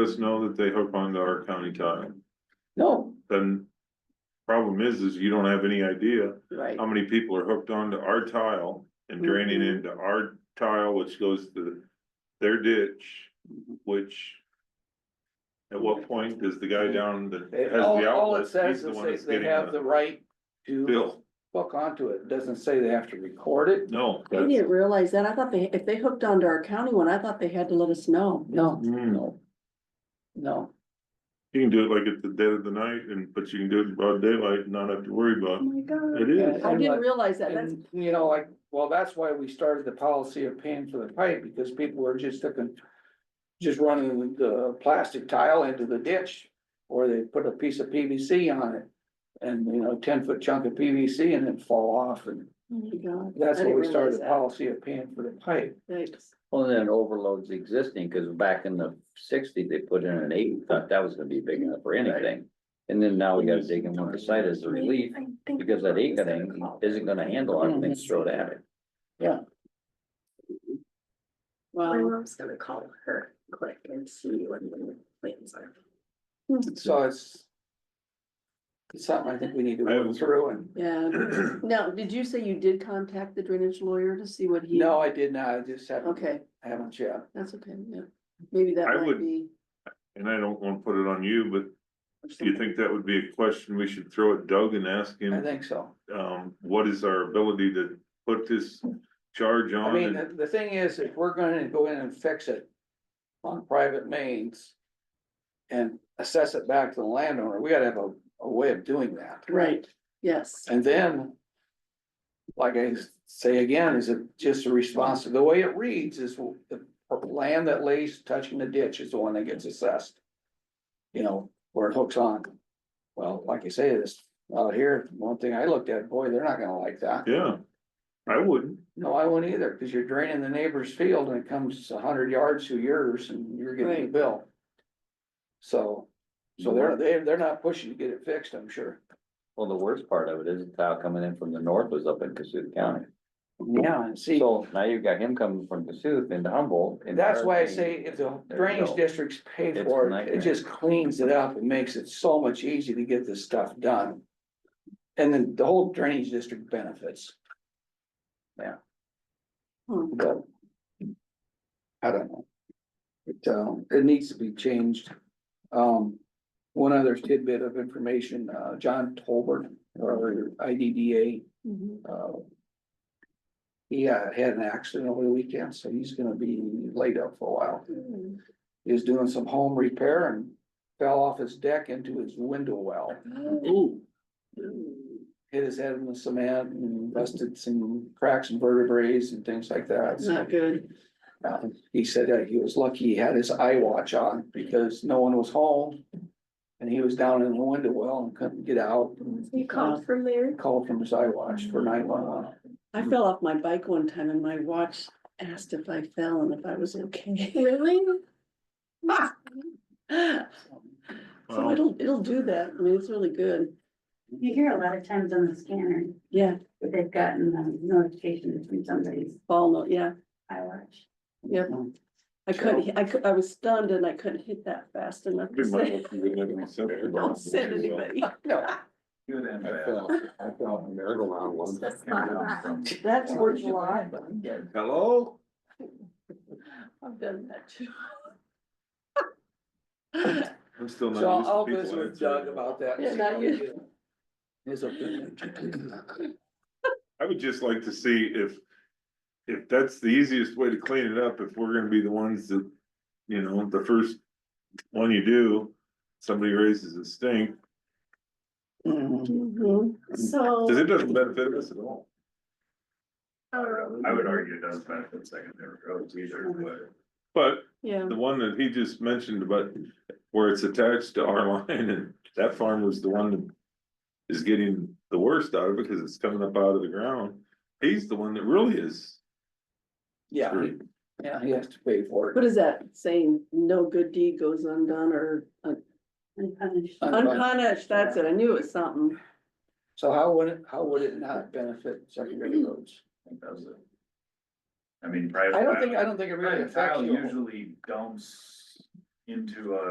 us know that they hook onto our county tile, No, then. Problem is, is you don't have any idea right, how many people are hooked onto our tile and draining Mm-hmm. into our tile, which goes to their ditch, which. At what point does the guy down that Mm-hmm. It- has all, the all outlet, it he's says the is one that's they, they getting have the the right to bill? hook onto it, doesn't say they have to record it, No. I that's- didn't realize that. I thought they, if they hooked onto our county one, I thought they had to let us know. no, Mm. no. No, You can do it like at the dead of the night and, but you can do it in broad daylight and not have to worry Oh about it. my It God. is, I And didn't like- realize that. That's, and you know, like, well, that's why we started the policy of paying for the pipe, because people were just looking. Just running the plastic tile into the ditch, or they put a piece of PVC on it. And, you know, ten foot chunk of PVC and then fall off, and oh my God. that's I why didn't we started realize the that. policy of paying for the pipe. Thanks. Well, then it overloads existing, cause back in the sixties, they put in an eight, thought that was gonna be big enough for anything. And then now we gotta dig in one beside as a relief, I think- because that eight thing isn't gonna handle everything thrown at it. Wow. My mom's gonna call her quick and see what the plans are. hmm, So it's. It's something I think we need to I work haven't- through and, Yeah. Now, did you say you did contact the drainage lawyer to see what he? no, I did not, I just haven't, Okay, haven't yet. that's okay, yeah. Maybe that I might would- be. and I don't wanna put it on you, but do you think that would be a question we should throw at Doug and ask I him? think so. Um, what is our ability to put this charge I on? mean, and- the, the thing is, if we're gonna go in and fix it on private mains and assess it back to the landowner, we gotta have a, a way of doing that. Right, yes, And then, like I say again, is it just a response, the way it reads is the land that lays touching the ditch is the one that gets assessed. You know, where it hooks on. Well, like you say, this out here, one thing I looked at, boy, they're not gonna like that. Yeah, I wouldn't. No, I wouldn't either, cause you're draining the neighbor's field and it comes a hundred yards to yours and you're getting the Right. bill. So, so they're, they're, they're not pushing to get it fixed, I'm sure. Well, the worst part of it is the tile coming in from the north was up in Cassuth County. Yeah, and see. So now you've got him coming from Cassuth into Humboldt. and That's why I everything- say if the There you drainage go. districts pay It's for it, nightmare. it just cleans it up and makes it so much easier to get this stuff done. And then the whole drainage district benefits. Yeah. Hmm. But I don't know. It, um, it needs to be changed. Um, one other tidbit of information, uh, John Tolbert or IDDA, Mm-hmm. Mhm. uh, he uh, had an accident over the weekend, so he's gonna be laid up for a while. Mm. He was doing some home repair and fell off his deck into his window well. Oh. Mm. Mm-hmm. Hit his head in the cement and busted some cracks and vertebrae and things like that. It's So, Not good, uh, He said that he was lucky he had his eye watch on because no one was home. And he was down in the window well and couldn't get out. You called from there? Called from his eye watch for nine one one. I fell off my bike one time and my watch asked if I fell and if I was okay. Really? Ah! So it'll, it'll do that, I mean, it's really good, You hear a lot of times on the scanner, yeah, that they've gotten um, notifications from somebody's fall, no- yeah, iWatch. yeah. I couldn't, I could, I was stunned and I couldn't hit that fast enough to Be my- say, you wouldn't have any sense of- don't send anybody. No, That's not bad. That's worth a lot. Hello? I've done that too. I'm still not. So used to I'll people visit with answering. Doug about that. and Yeah, see not how we you. do. His opinion. I would just like to see if, if that's the easiest way to clean it up, if we're gonna be the ones that, you know, the first one you do, somebody raises a stink, Mm-hmm. Mhm. So, cause it doesn't benefit us at all. um, I would argue it does benefit secondary roads either, but But Yeah, the one that he just mentioned about where it's attached to our line and that farm was the one that is getting the worst out of it because it's coming up out of the ground. He's the one that really is. Yeah, he- screwed. yeah, he has to pay for what it. is that saying? No good deed goes undone or uh, unpunished. unpunished, that's it, I knew it was something. So how would it, how would it not benefit secondary roads? it doesn't. I mean, private. I don't think, I don't think it really Private affects tile you. usually dumps into a